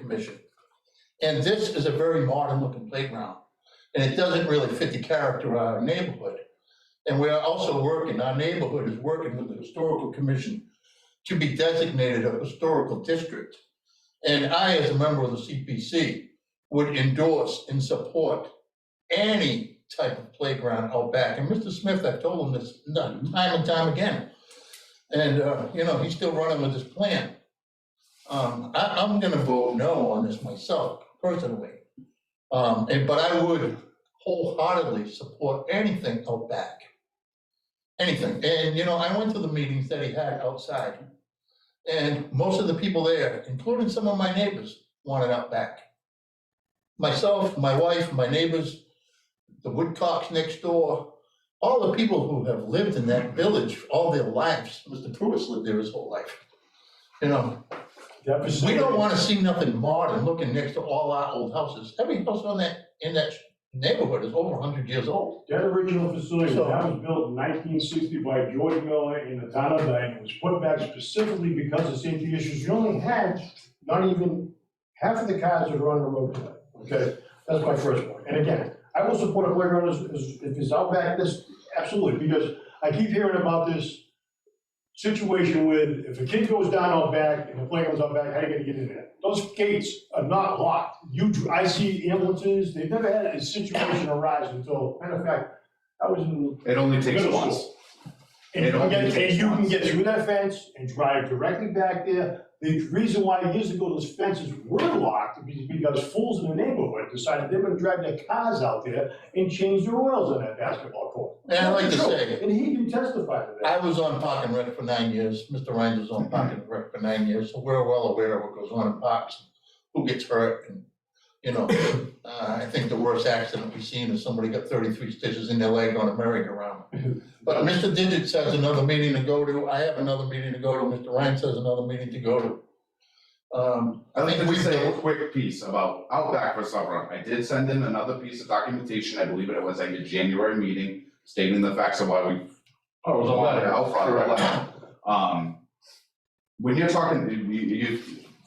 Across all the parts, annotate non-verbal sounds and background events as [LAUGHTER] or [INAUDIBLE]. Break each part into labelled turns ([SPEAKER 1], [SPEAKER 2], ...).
[SPEAKER 1] commission. And this is a very modern looking playground, and it doesn't really fit the character of our neighborhood. And we are also working, our neighborhood is working with the historical commission to be designated a historical district. And I, as a member of the CPC, would endorse and support any type of playground out back. And Mr. Smith, I've told him this no- time and time again. And, uh, you know, he's still running with his plan. Um, I, I'm gonna vote no on this myself personally. Um, and, but I would wholeheartedly support anything out back. Anything. And, you know, I went to the meetings that he had outside. And most of the people there, including some of my neighbors, wanted out back. Myself, my wife, my neighbors, the Woodcocks next door, all the people who have lived in that village all their lives. Mr. Pruitt lived there his whole life. You know,
[SPEAKER 2] That
[SPEAKER 1] we
[SPEAKER 2] facility-
[SPEAKER 1] don't wanna see nothing modern looking next to all our old houses. Every house on that, in that neighborhood is over hundred years old.
[SPEAKER 2] That original facility,
[SPEAKER 1] So-
[SPEAKER 2] that was built in nineteen sixty by George Miller in the town of Dayton, was put back specifically because of safety issues. You only had not even half of the cars that are on the road today, okay? That's my first point. And again, I will support a playground as, as, if it's out back this, absolutely, because I keep hearing about this situation with, if a kid goes down out back and the playground's out back, how you gonna get in there? Those gates are not locked. You, dr- I see ambulances, they've never had a situation arise until, matter of fact, I was in.
[SPEAKER 3] It only takes
[SPEAKER 2] middle
[SPEAKER 3] once.
[SPEAKER 2] school. And you
[SPEAKER 3] It
[SPEAKER 2] can
[SPEAKER 3] only
[SPEAKER 2] get, and
[SPEAKER 3] takes
[SPEAKER 2] you can
[SPEAKER 3] once.
[SPEAKER 2] get through that fence and drive directly back there. The reason why years ago those fences were locked is because fools in the neighborhood decided they were gonna drive their cars out there and change their oils on that basketball court.
[SPEAKER 1] And I'd like to say-
[SPEAKER 2] And he can testify to that.
[SPEAKER 1] I was on Park and Rec for nine years, Mr. Ryan was on Park and Rec for nine years, so we're well aware of what goes on in parks. Who gets hurt and, you know, [COUGHS] uh, I think the worst accident we've seen is somebody got thirty-three stitches in their leg on a merry-go-round. But Mr. Digits has another meeting to go to, I have another meeting to go to, Mr. Ryan has another meeting to go to. Um,
[SPEAKER 3] I'd like
[SPEAKER 1] think
[SPEAKER 3] to
[SPEAKER 1] we've
[SPEAKER 3] just say a
[SPEAKER 1] done-
[SPEAKER 3] quick piece about Outback for summer. I did send in another piece of documentation, I believe it was at your January meeting, stating the facts of why we.
[SPEAKER 2] Oh, it was a
[SPEAKER 3] wanted
[SPEAKER 2] letter.
[SPEAKER 3] Outback,
[SPEAKER 2] Correct.
[SPEAKER 3] right. Um, when you're talking, you, you,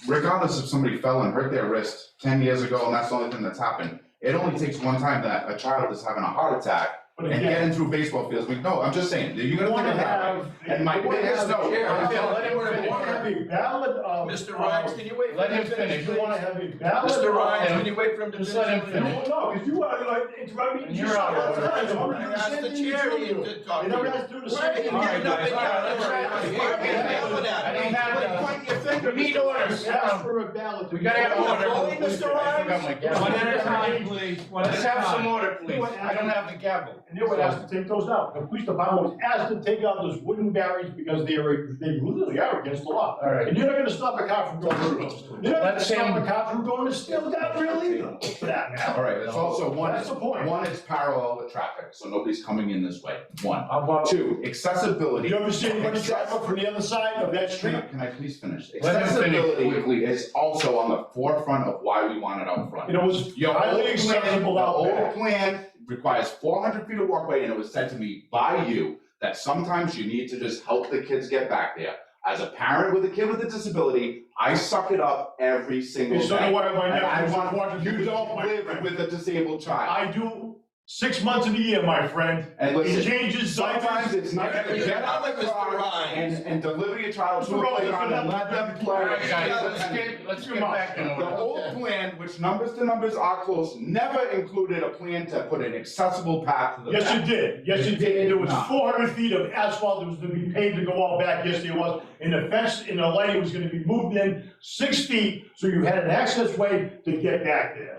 [SPEAKER 3] regardless if somebody fell and hurt their wrist ten years ago, and that's the only thing that's happened, it only takes one time that a child is having a heart attack
[SPEAKER 2] But
[SPEAKER 3] and
[SPEAKER 2] again,
[SPEAKER 3] getting through baseball fields. We, no, I'm just saying, you're
[SPEAKER 2] You
[SPEAKER 3] gonna
[SPEAKER 2] wanna
[SPEAKER 3] think it happened.
[SPEAKER 2] have.
[SPEAKER 3] And my biggest no, I'm gonna let him finish.
[SPEAKER 2] You wanna have a ballot of.
[SPEAKER 4] Mr. Ryan, can you wait for
[SPEAKER 2] Let
[SPEAKER 4] him
[SPEAKER 2] him
[SPEAKER 4] to finish?
[SPEAKER 2] finish, you wanna have a ballot.
[SPEAKER 4] Mr. Ryan,
[SPEAKER 2] of-
[SPEAKER 4] can you wait for him to finish?
[SPEAKER 2] Just let him finish. No, because you are like interrupting.
[SPEAKER 4] And you're out of order.
[SPEAKER 2] You
[SPEAKER 4] You asked the chair to talk to
[SPEAKER 2] never
[SPEAKER 4] you.
[SPEAKER 2] asked to do the
[SPEAKER 4] Why are you
[SPEAKER 2] same.
[SPEAKER 4] getting up and yelling? Why are you yelling
[SPEAKER 2] I
[SPEAKER 4] at
[SPEAKER 2] don't
[SPEAKER 4] me?
[SPEAKER 2] have
[SPEAKER 4] Why are you
[SPEAKER 2] that.
[SPEAKER 4] pointing your finger?
[SPEAKER 2] Need orders. Ask for a ballot.
[SPEAKER 5] We gotta have order.
[SPEAKER 4] Voting, Mr.
[SPEAKER 5] I forgot
[SPEAKER 4] Ryan?
[SPEAKER 5] my gavel.
[SPEAKER 2] One at a
[SPEAKER 5] time, please. Let's have some order, please.
[SPEAKER 2] You want-
[SPEAKER 5] I don't have the gavel.
[SPEAKER 2] And they were asked to take those out. The police department was asked to take out those wooden barriers because they are, they literally are against the law.
[SPEAKER 5] All right.
[SPEAKER 2] And you're not gonna stop a cop from going through those. You're not gonna
[SPEAKER 5] Let's
[SPEAKER 2] stop
[SPEAKER 5] him-
[SPEAKER 2] a cop from going to steal that really. For that matter.
[SPEAKER 3] All right, it's also one,
[SPEAKER 2] That's the point.
[SPEAKER 3] one, it's parallel with traffic, so nobody's coming in this way, one.
[SPEAKER 2] How about
[SPEAKER 3] Two, accessibility.
[SPEAKER 2] You ever see anybody drive up from the other side of that
[SPEAKER 3] Can I-
[SPEAKER 2] street?
[SPEAKER 3] can I please finish?
[SPEAKER 5] Let him finish.
[SPEAKER 3] Accessibility is also on the forefront of why we want it out front.
[SPEAKER 2] And it was
[SPEAKER 3] Your old
[SPEAKER 2] highly
[SPEAKER 3] plan,
[SPEAKER 2] accessible
[SPEAKER 3] the
[SPEAKER 2] out
[SPEAKER 3] old
[SPEAKER 2] back.
[SPEAKER 3] plan requires four hundred feet of walkway, and it was said to me by you that sometimes you need to just help the kids get back there. As a parent with a kid with a disability, I suck it up every single
[SPEAKER 2] It's not
[SPEAKER 3] day.
[SPEAKER 2] one of my
[SPEAKER 3] And I
[SPEAKER 2] nephews
[SPEAKER 3] want-
[SPEAKER 2] was walking through
[SPEAKER 3] You
[SPEAKER 2] the
[SPEAKER 3] don't
[SPEAKER 2] door, my
[SPEAKER 3] live
[SPEAKER 2] friend.
[SPEAKER 3] with a disabled child,
[SPEAKER 2] I do six months of the year, my friend.
[SPEAKER 3] and listen.
[SPEAKER 2] It changes
[SPEAKER 3] Sometimes
[SPEAKER 2] sometimes.
[SPEAKER 3] it's not gonna
[SPEAKER 4] You're
[SPEAKER 3] get out
[SPEAKER 4] not
[SPEAKER 3] of
[SPEAKER 4] with
[SPEAKER 3] the
[SPEAKER 4] Mr.
[SPEAKER 3] car
[SPEAKER 4] Ryan.
[SPEAKER 3] and, and deliver your child to a playground and let them
[SPEAKER 5] All
[SPEAKER 3] play.
[SPEAKER 5] right, guys, let's
[SPEAKER 3] Listen,
[SPEAKER 5] get, let's get back in
[SPEAKER 3] The
[SPEAKER 5] order.
[SPEAKER 3] old plan, which numbers to numbers are close, never included a plan to put an accessible path to the
[SPEAKER 2] Yes,
[SPEAKER 3] back.
[SPEAKER 2] it did. Yes,
[SPEAKER 3] It
[SPEAKER 2] it did. And there was
[SPEAKER 3] did not.
[SPEAKER 2] four hundred feet of asphalt that was to be paved to go out back. Yes, there was. And the fence and the lighting was gonna be moved in six feet, so you had an access way to get back there.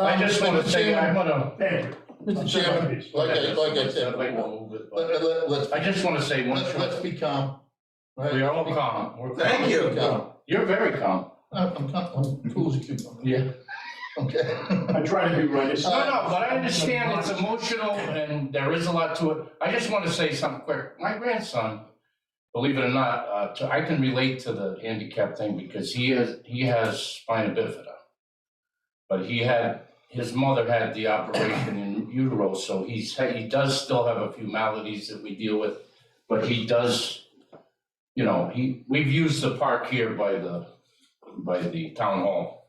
[SPEAKER 5] I just
[SPEAKER 1] Um,
[SPEAKER 5] wanna
[SPEAKER 1] Mr.
[SPEAKER 5] say, I
[SPEAKER 1] Chairman,
[SPEAKER 5] wanna.
[SPEAKER 2] Thank you.
[SPEAKER 1] Mr. Chairman, like I, like I said before, let, let, let's,
[SPEAKER 5] I just wanna say one
[SPEAKER 1] let's, let's
[SPEAKER 5] thing.
[SPEAKER 1] be calm. right?
[SPEAKER 5] We are all calm. We're calm.
[SPEAKER 4] Thank you.
[SPEAKER 1] Be calm.
[SPEAKER 5] You're very calm.
[SPEAKER 1] I'm, I'm calm, I'm cool as a cucumber.
[SPEAKER 5] Yeah.
[SPEAKER 1] Okay. [LAUGHS]
[SPEAKER 2] I try to be right. It's
[SPEAKER 5] No,
[SPEAKER 2] not-
[SPEAKER 5] no, but I understand it's emotional and there is a lot to it. I just wanna say something quick. My grandson, believe it or not, uh, to- I can relate to the handicap thing because he has, he has spina bifida. But he had, his mother had the operation in utero, so he's, he does still have a few maladies that we deal with. But he does, you know, he, we've used the park here by the, by the town hall